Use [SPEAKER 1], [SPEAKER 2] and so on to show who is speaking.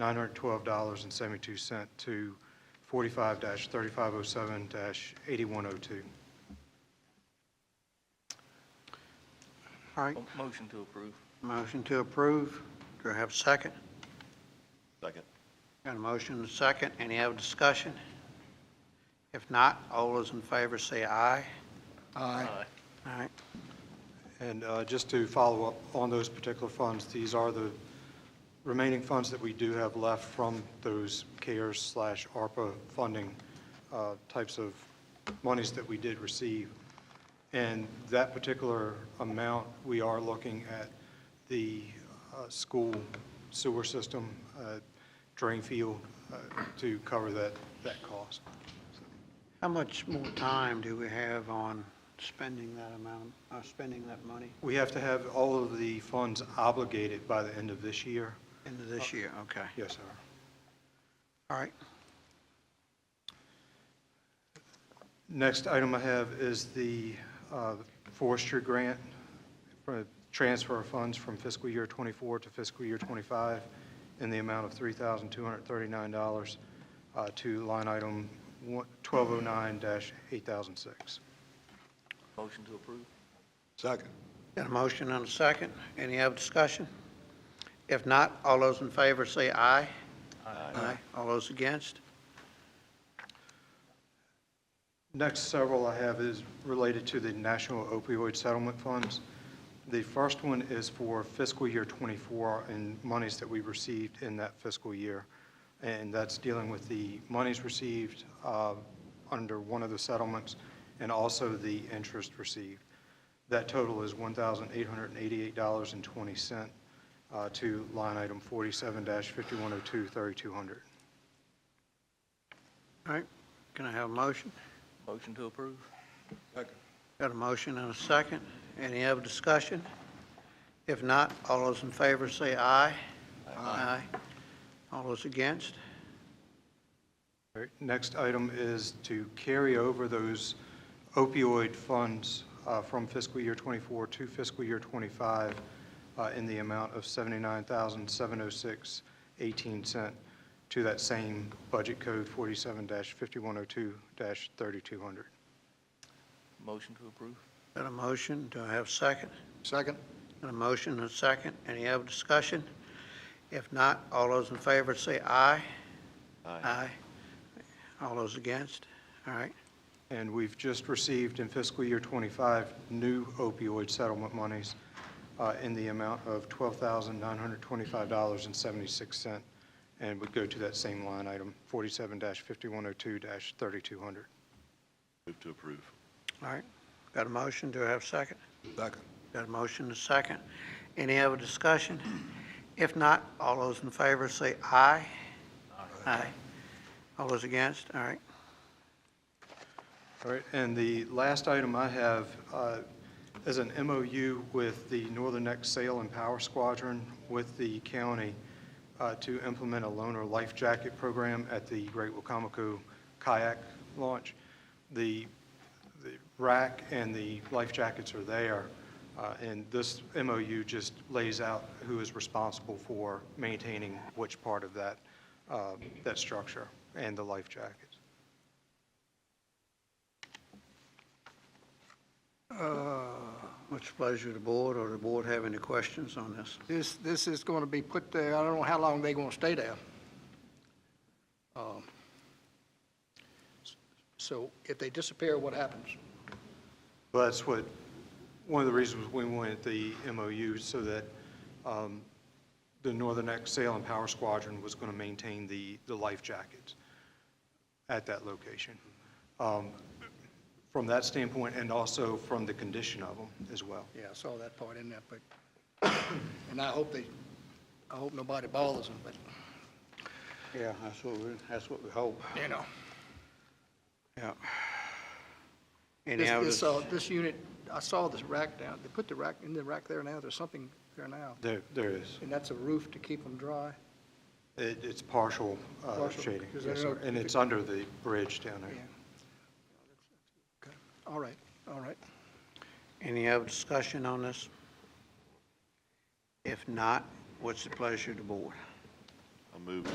[SPEAKER 1] $912.72 to 45-3507-8102.
[SPEAKER 2] All right,
[SPEAKER 3] Motion to approve.
[SPEAKER 2] motion to approve. Do I have a second?
[SPEAKER 4] Second.
[SPEAKER 2] Got a motion and a second. Any other discussion? If not, all those in favor say aye.
[SPEAKER 3] Aye.
[SPEAKER 2] All right,
[SPEAKER 1] And uh, just to follow up on those particular funds, these are the remaining funds that we do have left from those CARES slash ARPA funding uh, types of monies that we did receive. And that particular amount, we are looking at the uh, school sewer system, uh, drain field, uh, to cover that, that cost.
[SPEAKER 2] how much more time do we have on spending that amount, uh, spending that money
[SPEAKER 1] We have to have all of the funds obligated by the end of this year.
[SPEAKER 2] into this year? Okay,
[SPEAKER 1] Yes, sir.
[SPEAKER 2] all right.
[SPEAKER 1] Next item I have is the uh, forestry grant for transfer of funds from fiscal year '24 to fiscal year '25 in the amount of $3,239 uh, to line item one- 1209-8006.
[SPEAKER 3] Motion to approve.
[SPEAKER 4] Second.
[SPEAKER 2] Got a motion and a second. Any other discussion? If not, all those in favor say aye. Aye. All those against?
[SPEAKER 1] Next several I have is related to the National Opioid Settlement Funds. The first one is for fiscal year '24 and monies that we received in that fiscal year. And that's dealing with the monies received uh, under one of the settlements and also the interest received. That total is $1,888.20 uh, to line item 47-5102-3200.
[SPEAKER 2] All right, can I have a motion?
[SPEAKER 3] Motion to approve.
[SPEAKER 4] Second.
[SPEAKER 2] Got a motion and a second. Any other discussion? If not, all those in favor say aye. Aye. All those against?
[SPEAKER 1] All right, Next item is to carry over those opioid funds uh, from fiscal year '24 to fiscal year '25 in the amount of $79,706.18 to that same budget code 47-5102-3200.
[SPEAKER 3] Motion to approve.
[SPEAKER 2] Got a motion, do I have a second?
[SPEAKER 4] Second.
[SPEAKER 2] Got a motion and a second. Any other discussion? If not, all those in favor say aye. Aye. All those against? All right,
[SPEAKER 1] And we've just received in fiscal year '25 new opioid settlement monies uh, in the amount of $12,925.76, and would go to that same line item, 47-5102-3200.
[SPEAKER 4] Move to approve.
[SPEAKER 2] all right. Got a motion, do I have a second?
[SPEAKER 4] Second.
[SPEAKER 2] Got a motion and a second. Any other discussion? If not, all those in favor say aye. Aye. All those against? All right.
[SPEAKER 1] All right, and the last item I have uh, is an MOU with the Northern Neck Sail and Power Squadron with the county uh, to implement a loaner life jacket program at the Great Wacomico kayak launch. The the rack and the life jackets are there, uh, and this MOU just lays out who is responsible for maintaining which part of that, uh, that structure and the life jackets.
[SPEAKER 2] What's the pleasure of the board, or the board have any questions on this?
[SPEAKER 5] This, this is going to be put there, I don't know how long they're going to stay there. Um, So if they disappear, what happens?
[SPEAKER 1] Well, that's what, one of the reasons we wanted the MOU, so that um, the Northern Neck Sail and Power Squadron was going to maintain the, the life jackets at that location. Um, From that standpoint, and also from the condition of them as well.
[SPEAKER 5] Yeah, I saw that part in there, but, and I hope they, I hope nobody bothers them, but,
[SPEAKER 2] Yeah, that's what we, that's what we hope.
[SPEAKER 5] you know.
[SPEAKER 2] Yeah. Any
[SPEAKER 5] This,
[SPEAKER 2] other,
[SPEAKER 5] this, uh, this unit, I saw this rack down, they put the rack, in the rack there now, there's something there now,
[SPEAKER 1] There, there is.
[SPEAKER 5] and that's a roof to keep them dry.
[SPEAKER 1] It, it's partial uh,
[SPEAKER 5] Partial,
[SPEAKER 1] shading,
[SPEAKER 5] because I
[SPEAKER 1] yes, sir.
[SPEAKER 5] know-
[SPEAKER 1] And it's under the bridge down there.
[SPEAKER 5] Yeah. Okay. All right, all right.
[SPEAKER 2] any other discussion on this? If not, what's the pleasure of the board?
[SPEAKER 4] I'll move